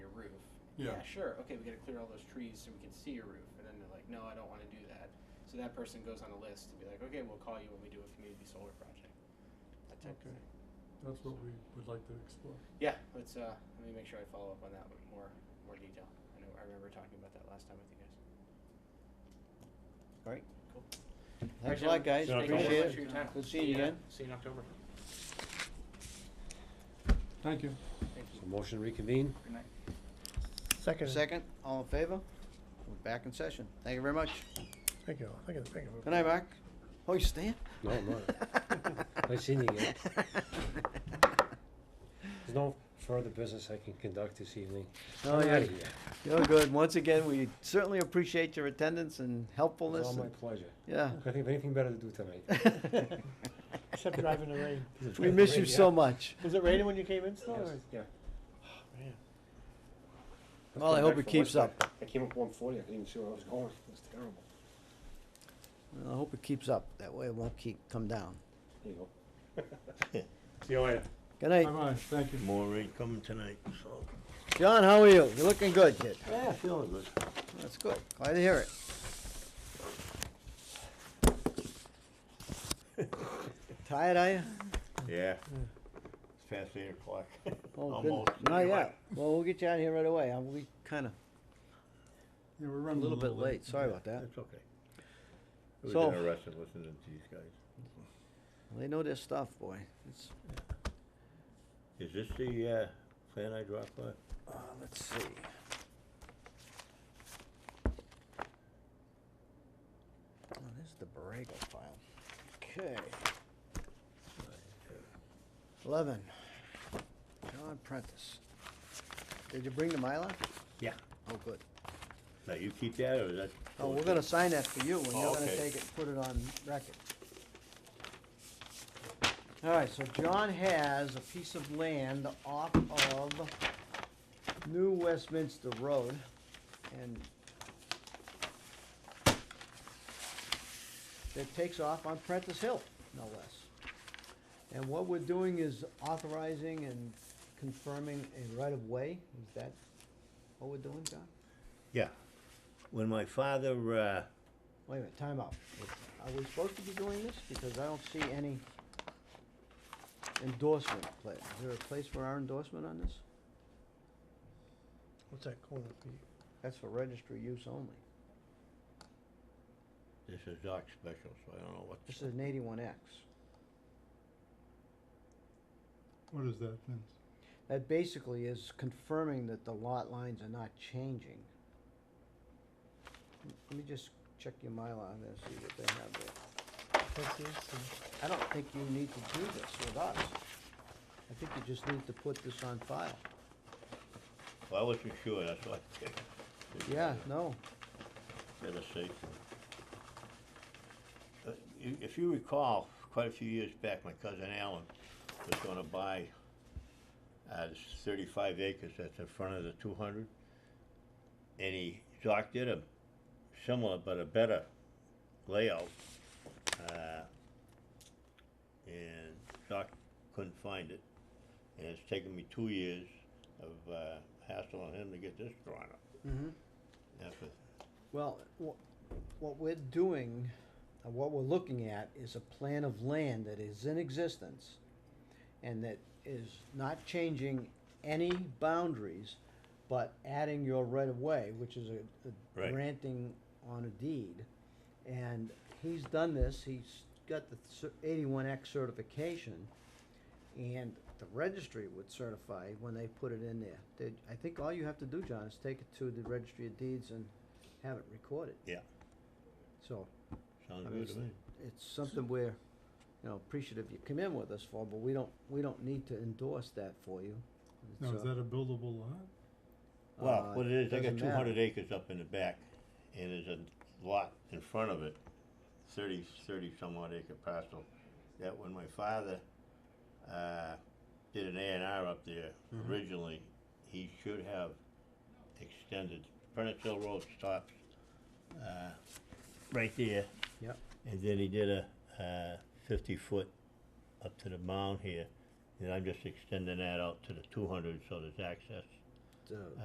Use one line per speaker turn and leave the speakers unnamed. Yeah.
yeah, sure, okay, we got to clear all those trees so we can see your roof. And then they're like, no, I don't want to do that. So that person goes on a list to be like, okay, we'll call you when we do a community solar project. That type of
Okay.
thing.
That's what we would like to explore.
Yeah, let's uh, let me make sure I follow up on that with more more detail. I know I remember talking about that last time with you guys.
All right.
Cool. Alright,
Thanks a
gentlemen.
lot, guys.
Thank you very
Appreciate
much for your time.
it. Good seeing you
See ya.
again.
See you in October.
Thank you.
Thank you.
So motion to reconvene?
Good night.
Second.
Second, all in favor? We're back in session. Thank you very much.
Thank you, thank you, thank you.
Good night, Mark. Oh, you staying?
No, I'm not. Nice seeing you again. There's no further business I can conduct this evening.
Oh, yeah.
Alrighty.
You're good. Once again, we certainly appreciate your attendance and
It's
helpfulness.
all my
and-
pleasure.
Yeah.
I think of anything better to do tonight.
Except driving the rain.
We miss you so much.
Was it raining when you came in still,
Yes, Oh,
or?
Yeah.
Man.
Well, I
Back
hope it
from
keeps
Westwood.
up.
I came up one forty, I couldn't even see where I was going. It was terrible.
Well, I hope it keeps up. That way it won't keep, come down.
There you go.
See you later.
Good night.
Bye-bye, thank you.
More rain coming tonight, so.
John, how are you? You're looking good, kid.
Yeah, feeling good.
That's good. Glad to hear it. Tired, are you?
Yeah. It's past eight o'clock.
Oh,
Almost.
goodness. Not
Anyway.
yet. Well, we'll get you out of here right away. Uh, We kind of
Yeah, we're
a
running
little bit late. Sorry about that.
It's okay. It was
So-
interesting listening to these guys.
They know their stuff, boy. It's,
Is this the, uh, plan I dropped by?
uh, let's see. Oh, this is the Borrego file. Okay. Eleven. John Prentice. Did you bring the Mylar?
Yeah.
Oh, good.
Now, you keep that, or is that?
Oh, we're gonna sign that for you, and you're
Oh,
gonna
okay.
take it, and put it on record. All right, so John has a piece of land off of New Westminster Road, and that takes off on Prentice Hill, no less. And what we're doing is authorizing and confirming a right-of-way, is that what we're doing, John?
Yeah. When my father, uh,
Wait a minute, time out. Are we supposed to be doing this? Because I don't see any endorsement pla- Is there a place for our endorsement on this?
What's that corner fee?
That's for registry use only.
this is Doc Special, so I don't know what.
This is an eighty-one X.
What is that, Vince?
That basically is confirming that the lot lines are not changing. Let me just check your Mylar there, see what they have there.
That's it, so-
I don't think you need to do this with us. I think you just need to put this on file.
Well, I wasn't sure, that's why. I checked.
Yeah, no,
Better safe. Uh, you- If you recall, quite a few years back, my cousin Alan was gonna buy uh, this thirty-five acres that's in front of the two hundred. And he docked it a similar but a better layout. uh, And Doc couldn't find it. And it's taken me two years of uh, hassle on him to get this drawn up.
Mm-hmm.
After
Well, wha- what we're doing, uh, what we're looking at is a plan of land that is in existence and that is not changing any boundaries, but adding your right of way, which is a, a
Right.
granting on a deed. And he's done this, he's got the eighty-one X certification. And the registry would certify when they put it in there. They- I think all you have to do, John, is take it to the registry of deeds and have it recorded.
Yeah.
So, I
Sounds
mean,
good
it's,
to me.
it's something we're, you know, appreciative you come in with us for, but we don't, we don't need to endorse that for you.
Now, is
So,
that a buildable lot?
Well,
uh,
what it is, I got
doesn't
two
matter.
hundred acres up in the back, and there's a lot in front of it, thirty, thirty some odd acre parcel. That when my father, uh, did an A and R up there
Mm-hmm.
originally, he should have extended, Prentice Hill Road stops, uh, right there.
Yep.
And then he did a, uh, fifty foot up to the mound here, and I'm just extending that out to the two hundred, so there's access.
So-